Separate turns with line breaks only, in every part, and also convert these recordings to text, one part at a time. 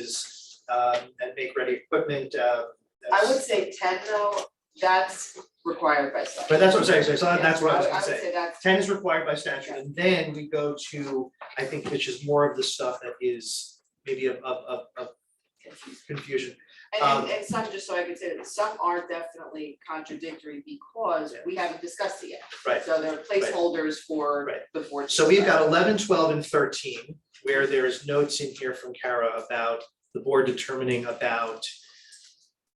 cases, um, and make ready equipment, uh,
I
that's-
would say ten though, that's required by statute.
But that's what I'm saying, so it's not- that's what I was gonna
Yeah, would
say.
say that's,
Ten is required by statute, and then we go to, I think, which is more of the stuff that is maybe of, of, of, of confusion.
and
Um,
and and some, just so I could say, that some are definitely contradictory because we haven't discussed it yet.
Right.
So there are placeholders for
Right.
the board.
So we've got 11, 12, and thirteen, where there's notes in here from Kara about the board determining about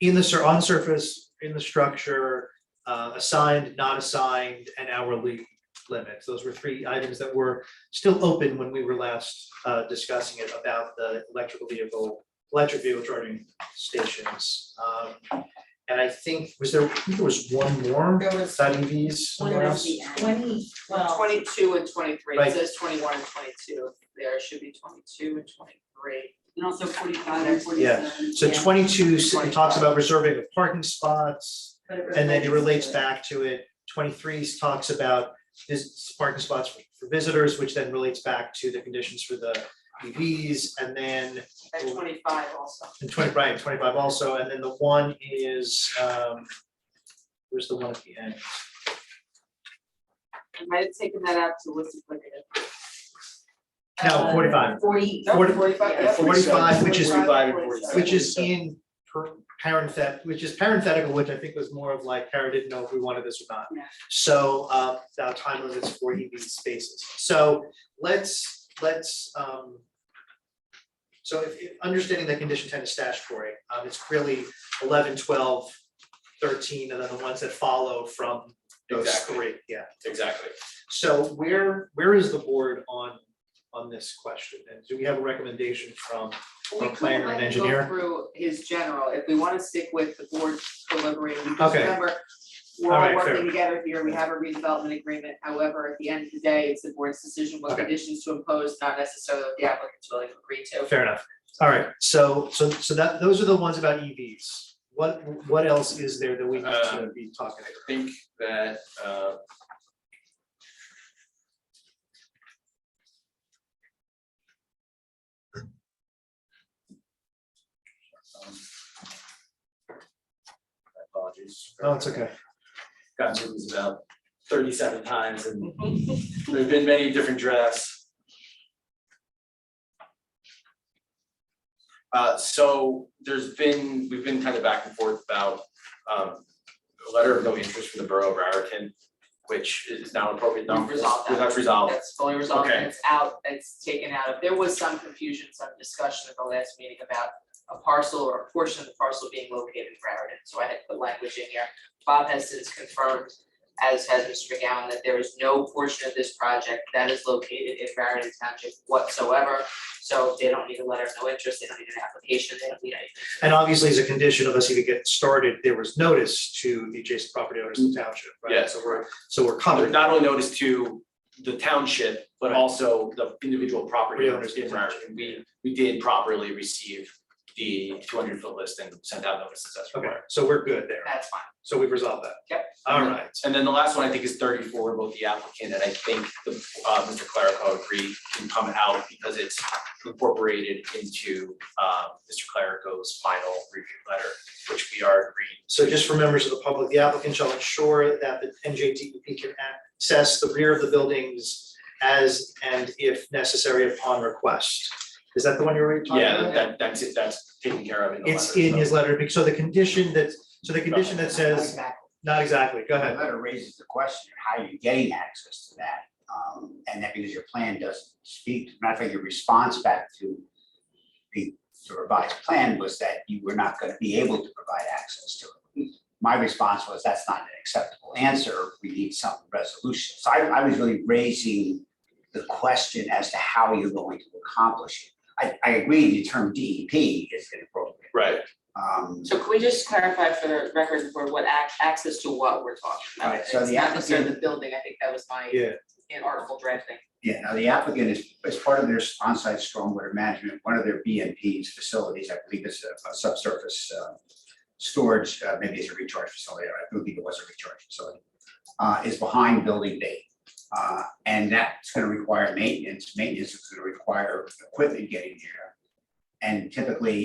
in the sur- on surface, in the structure, uh, assigned, not assigned, and hourly limits. Those were three items that were still open when we were last, uh, discussing it about the electrical vehicle, electric vehicle charging stations. Um, and I think, was there, I think there was one more,
There was
side EVs, somewhere else?
twenty twelve,
Twenty two and twenty three,
Right.
it says twenty one and twenty two, there should be twenty two and twenty three.
And also forty-five and
Yeah.
forty-seven.
So
Yeah.
twenty-two, s- it talks about reserving of parking spots,
but it relates
and then it relates
to-
back to it. Twenty-three talks about this parking spots for for visitors, which then relates back to the conditions for the EVs, and then
and twenty five also.
and twenty, right, twenty-five also, and then the one is, um, where's the one at the end?
I might have taken that out to listen like it.
No,
Uh,
forty-five,
Forty,
No,
Forty-
forty-five, yeah.
45, which is-
45,
and
47.
which is in per- parenthet, which is parenthetical, which I think was more of like, Kara didn't know if we wanted this or not.
Yeah.
So, uh, now time limits for EV spaces, so let's, let's, um. So if, if- understanding that condition ten is statutory, um, it's really 11, 12, 13, and then the ones that follow from those
Exactly.
three, yeah.
Exactly.
So where, where is the board on, on this question, and do we have a recommendation from
We
Or planner
could
and
let him
engineer?
go through his general, if we wanna stick with the board deliberating, because
Okay.
remember, we're
All
all
right, fair.
working together here, we have a redevelopment agreement, however, at the end of the day, it's the board's decision what
Okay.
conditions to impose, not necessarily what the applicant's willing to agree to.
Fair enough. All right, so, so, so that, those are the ones about EVs. What, what else is there that we need to be talking
I think that, uh. um, Apologies.
about? No, oh, it's okay.
Gotten through these about thirty-seven times and there've been many different drafts. Uh, so there's been, we've been kind of back and forth about, um, a letter of no interest from the Borough of Raritan, which is now appropriate, not
Resolved that.
resolved, that's resolved.
That's fully resolved,
Okay.
and it's out, it's taken out of, there was some confusion, some discussion at the last meeting about a parcel or a portion of the parcel being located in Raritan, so I had put language in here. Bob has since confirmed, as has Mr. McGowan, that there is no portion of this project that is located in Raritan Township whatsoever. So they don't need a letter of no interest, they don't need an application, they don't need anything.
And obviously, as a condition of us even getting started, there was notice to the adjacent property owners in the township, right?
Yeah.
So we're, so we're covered.
Not only notice to the township, but
Right.
also the individual property owners in
Property owners.
Raritan. We, we did properly receive the two hundred foot list and sent out notices as
Okay,
required.
so we're good there.
That's fine.
So we've resolved that.
Yep.
All right.
And then the last one, I think, is thirty-four, both the applicant and I think the, uh, Mr. Clerico agreed can come out because it's incorporated into, uh, Mr. Clerico's final review letter, which we are agreeing.
So just for members of the public, the applicant shall ensure that the NJDEP E can access the rear of the buildings as and if necessary upon request. Is that the one you were talking about?
Yeah, that, that's it, that's taken care of in the letter.
It's in
so-
his letter, because so the condition that, so the condition that says, not exactly, go
The
ahead.
letter raises the question, how are you getting access to that? Um, and that because your plan doesn't speak, matter of fact, your response back to the the revised plan was that you were not gonna be able to provide access to it. My response was, that's not an acceptable answer, we need some resolution. So I, I was really raising the question as to how you're going to accomplish it. I, I agree, the term DEP is inappropriate.
Right,
Um,
So can we just clarify for the record, for what ac- access to what we're talking about?
Right, so
It's
the
not necessarily
applicant-
the building, I think that was my
Yeah.
in article drafting.
Yeah, now the applicant is, as part of their onsite stormwater management, one of their BMPs facilities, I believe it's a a subsurface uh, storage, uh, maybe it's a recharge facility, or I believe it was a recharge facility, uh, is behind building B. Uh, And that's gonna require maintenance, maintenance is gonna require equipment getting there. And typically,